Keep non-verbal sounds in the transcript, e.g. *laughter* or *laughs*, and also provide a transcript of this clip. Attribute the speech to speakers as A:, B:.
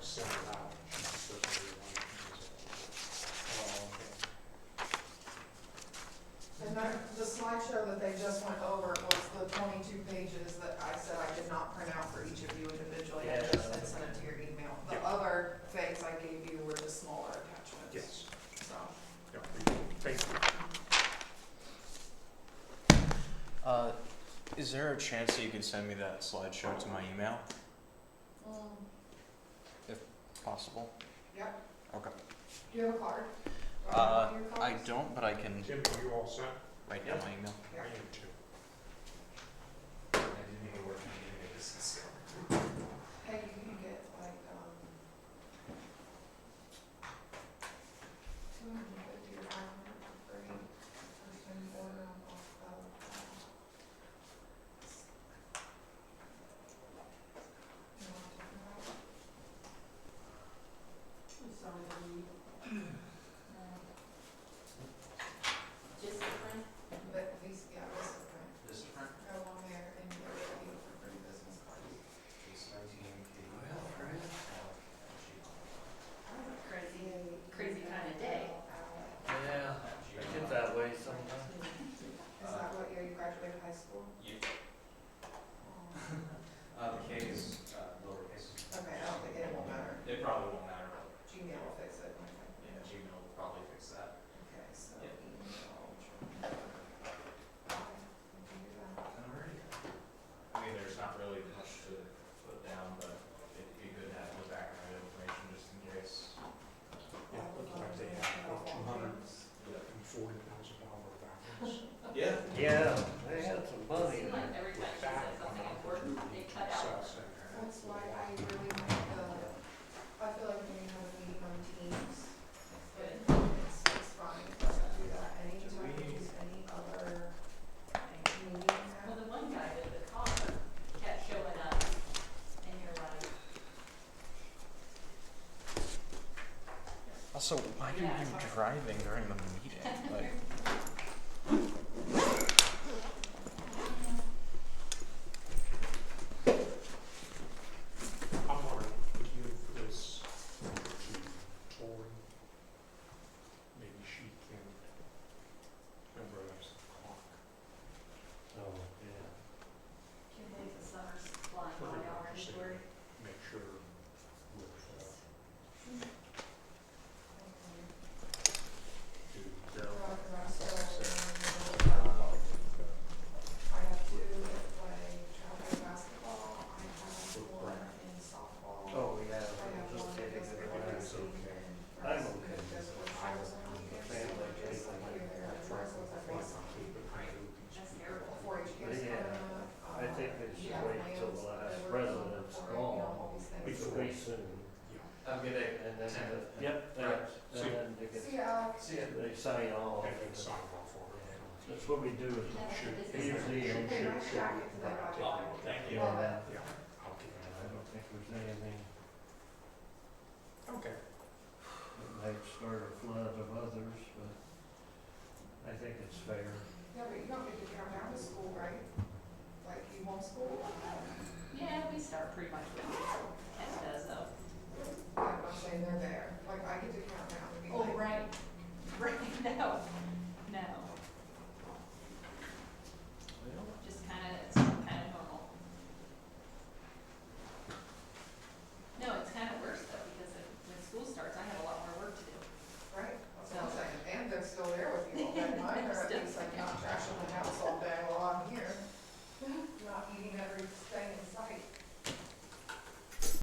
A: sent it out. She's the person who wanted to
B: And that, the slideshow that they just went over was the twenty-two pages that I said I did not print out for each of you individually, I just had sent it to your email. The
A: Yeah.
B: other things I gave you were the smaller
A: use it.
B: attachments,
A: Yes,
B: so.
A: yeah, we- thank you.
C: Uh, is there a chance that you can send me that slideshow to my email, possible?
B: Yep,
C: Okay.
B: do you have a card? Or
C: Uh,
B: your
D: Oh.
C: I
B: cards?
C: don't, but I can
A: Tim, are you all set?
C: write down my email.
A: I
B: Yeah.
A: am too.
B: Hey, you can get like, um, two hundred and fifty or five hundred for free, or you can order them off the, um, you know what I'm talking about?
D: Just different?
B: But these, yeah, this is fine.
D: This is different?
B: Go on there and get a deal for free business cards.
D: Case nineteen, K. Well, right. Crazy, crazy kinda day.
E: Yeah,
D: Uh,
E: I get that way sometimes.
B: Is that what year you graduated high school? *laughs*
D: Yeah.
B: Oh,
D: *laughs* Uh, the K is, uh, lowercase.
B: Okay, I don't think it will matter.
D: It probably won't matter, but,
B: Gmail will fix it, okay.
D: yeah, Gmail will probably fix that.
B: Okay, so
D: Yeah.
B: email. Okay, we can do that.
D: I mean, there's not really much to put down, but it'd be good to have the background information just in case.
A: Yeah, looks like they have about two hundred and forty thousand dollar values.
D: Yeah.
E: Yeah, they had some money.
F: Seems like every time she says something important, they cut out.
B: That's why I really like the, I feel like when you have a meeting on Teams, it's, it's fine for us to do that anytime, we use any other meeting
F: Well,
B: app.
F: the one guy with the collar kept showing up, and you're like,
C: Also, why are
F: Yeah,
C: you
F: sorry.
C: driving during the
D: *laughs*
C: meeting? Like,
A: I'm gonna give this to Tori. Maybe she can remember that's the clock.
E: Oh, yeah.
F: two days of summer's flying
A: We're
F: by
A: gonna
F: already,
A: just
F: we're,
A: Make sure we're, uh, do
B: So,
A: their.
B: cause I'm still in the middle of, I have two that play travel basketball, I have one in softball.
E: Oh, yeah.
B: I have
E: we're
B: one
E: Just
B: that
E: getting
B: does
E: it
B: everything,
E: right.
B: and
E: I'm
B: rest
E: okay.
B: because when I was on the
E: Family,
B: just like
E: family.
B: you're there, it's rest with a face on.
F: that's terrible.
B: four H kids.
E: Yeah, I
B: uh,
E: think they should wait till the last president's gone. It's
A: Before-
E: way soon.
D: Have a good day.
E: And then, the- yep, that's, and then they
B: See
E: get,
B: ya.
D: See ya.
E: they sign off.
A: And then sign off on it.
E: That's what we do is
F: That's the
E: we
F: business.
E: usually
B: Should
E: shoot,
B: be
E: shoot,
B: nice
E: shoot.
B: jackets that I
E: Yeah,
B: buy.
D: Thank
B: Love
E: Yeah.
B: it.
A: Yeah, I'll give
E: I
A: that.
E: don't think there's anything
A: Okay.
E: that might start a flood of others, but I think it's fair.
B: Yeah, but you don't get to come down to school, right? Like, you homeschool?
F: Yeah, we start pretty much when Ken does though.
B: Yeah, I'm saying they're there, like, I get to come down and be like.
F: Oh, right. Right, *laughs* no, no, just kinda, it's kinda normal. No, it's kinda worse though, because if- when school starts, I have a lot more work to do.
B: Right, that's what I'm saying, and they're still there with you all day, mine are at least like not trashing the house all day,